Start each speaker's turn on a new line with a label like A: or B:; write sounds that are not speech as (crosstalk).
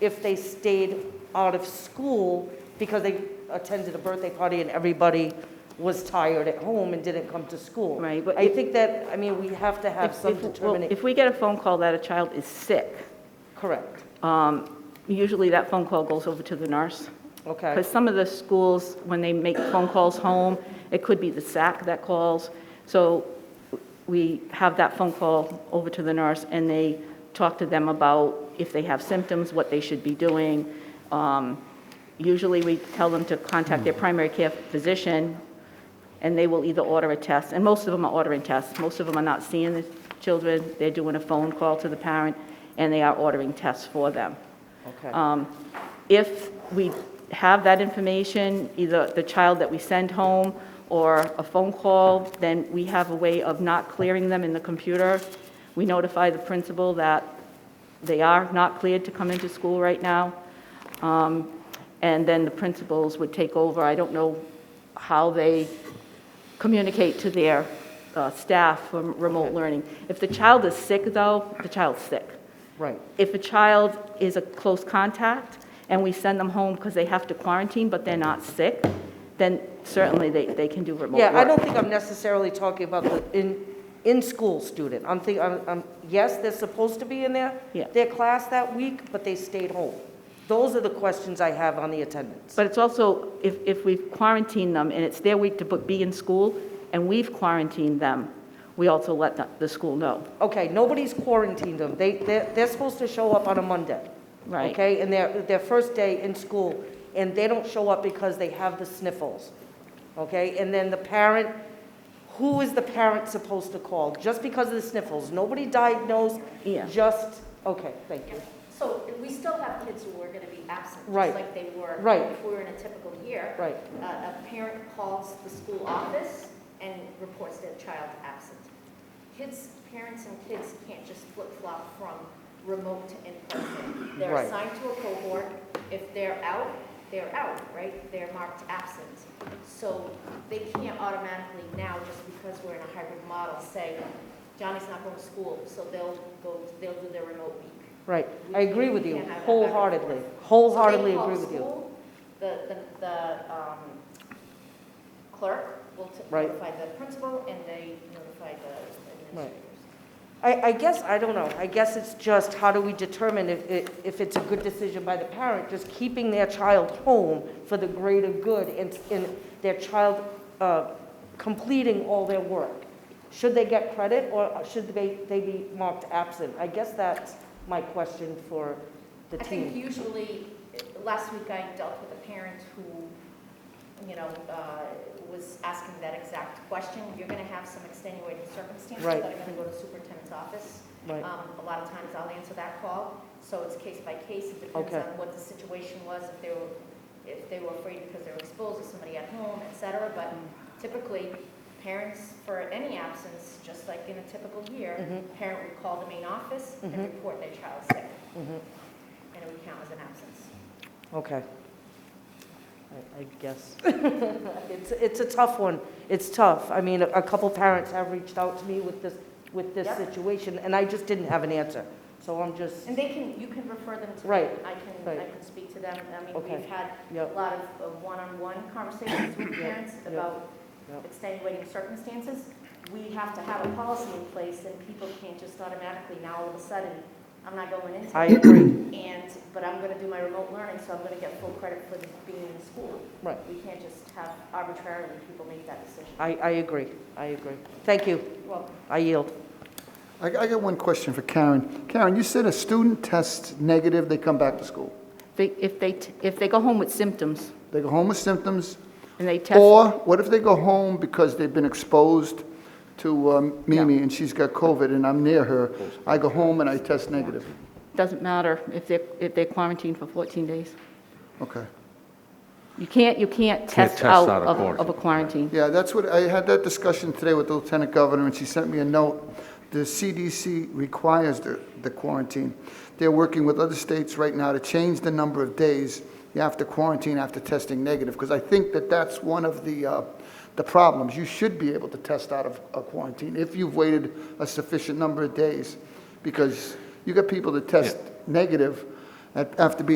A: if they stayed out of school because they attended a birthday party and everybody was tired at home and didn't come to school.
B: Right, but
A: I
B: if-
A: think that, I mean, we have to have
B: If-
A: some
B: if- well,
A: determination.
B: If we get a phone call that a child is sick,
A: Correct,
B: um, usually that phone call goes over to the nurse.
A: okay.
B: Because some of the schools, when they make phone calls home, it could be the SAC that calls. So we have that phone call over to the nurse, and they talk to them about if they have symptoms, what they should be doing. Um, Usually, we tell them to contact their primary care physician, and they will either order a test, and most of them are ordering tests. Most of them are not seeing the children, they're doing a phone call to the parent, and they are ordering tests for them.
A: Okay.
B: Um, If we have that information, either the child that we send home or a phone call, then we have a way of not clearing them in the computer. We notify the principal that they are not cleared to come into school right now. Um, And then the principals would take over. I don't know how they communicate to their uh, staff from remote learning. If the child is sick, though, the child's sick.
A: Right,
B: If a child is a close contact and we send them home because they have to quarantine, but they're not sick, then certainly they, they can do remote work.
A: yeah, I don't think I'm necessarily talking about the in, in-school student. I'm thinking, I'm, I'm- yes, they're supposed to be in their,
B: Yeah.
A: their class that week, but they stayed home. Those are the questions I have on the attendance.
B: But it's also, if, if we've quarantined them and it's their week to be in school and we've quarantined them, we also let the, the school know.
A: Okay, nobody's quarantined them. They, they're, they're supposed to show up on a Monday.
B: Right.
A: Okay, and their, their first day in school, and they don't show up because they have the sniffles. Okay, and then the parent, who is the parent supposed to call? Just because of the sniffles? Nobody diagnosed?
B: Yeah.
A: Just, okay, thank you.
C: So we still have kids who are going to be absent,
A: Right.
C: just like they were.
A: Right.
C: If we were in a typical year.
A: Right.
C: A, a parent calls the school office and reports their child absent. Kids, parents and kids can't just flip-flop from remote to in-person. They're
A: Right.
C: assigned to a cohort. If they're out, they're out, right? They're marked absent. So they can't automatically now, just because we're in a hybrid model, say, Johnny's not going to school, so they'll go, they'll do their remote week.
A: Right, I agree with you
C: We can't have that back and forth.
A: wholeheartedly,
C: So they
A: wholeheartedly
C: call
A: agree with you.
C: school, The, the, the um, clerk will t-
A: Right.
C: notify the principal and they notify the
A: Right.
C: administrators.
A: I, I guess, I don't know, I guess it's just how do we determine if, it- if it's a good decision by the parent, just keeping their child home for the greater good and, and their child uh, completing all their work? Should they get credit or should they, they be marked absent? I guess that's my question for the
C: I think
A: team.
C: usually, last week I dealt with a parent who, you know, uh, was asking that exact question. You're going to have some extenuating circumstances
A: Right.
C: that are going to go to the superintendent's office.
A: Right,
C: Um, A lot of times I'll answer that call, so it's case by case, it depends
A: Okay.
C: on what the situation was, if they were, if they were afraid because they were exposed to somebody at home, et cetera, but typically, parents, for any absence, just like in a typical year,
A: Mhm.
C: parent would call the main office and
A: Mhm.
C: report their child sick,
A: mhm,
C: and it would count as an absence.
A: okay. I- I guess. (laughs) It's, it's a tough one. It's tough. I mean, a a couple parents have reached out to me with this, with this
C: Yep.
A: situation, and I just didn't have an answer. So I'm just,
C: And they can, you can refer them to, me.
A: Right.
C: I can, I
A: Right.
C: can speak to them, I mean,
A: Okay.
C: we've had a
A: yep,
C: lot of uh, one-on-one conversations with
A: Yeah,
C: parents
A: yeah,
C: about
A: yeah.
C: extenuating circumstances. We have to have a policy in place, and people can't just automatically now all of a sudden, I'm not going into
A: I
C: it,
A: agree,
C: and, but I'm gonna do my remote learning, so I'm gonna get full credit for the- being in school.
A: right.
C: We can't just have arbitrarily people make that decision.
A: I, I agree, I agree. Thank you,
C: Well,
A: I yield.
D: I I got one question for Karen. Karen, you said a student tests negative, they come back to school.
B: They, if they, t- if they go home with symptoms
D: They go home with symptoms,
B: and they test.
D: or what if they go home because they've been exposed to um, Mimi and she's got COVID and I'm near her? I go home and I test negative.
B: Doesn't matter if they're, if they're quarantined for 14 days.
D: Okay.
B: You can't, you can't test
E: test
B: out
E: out of
B: of, of a
E: quarantine.
B: quarantine.
D: Yeah, that's what, I had that discussion today with the Lieutenant Governor, and she sent me a note. The CDC requires the the quarantine. They're working with other states right now to change the number of days you have to quarantine after testing negative, because I think that that's one of the, uh, the problems. You should be able to test out of a quarantine if you've waited a sufficient number of days, because you got people that test negative at- after being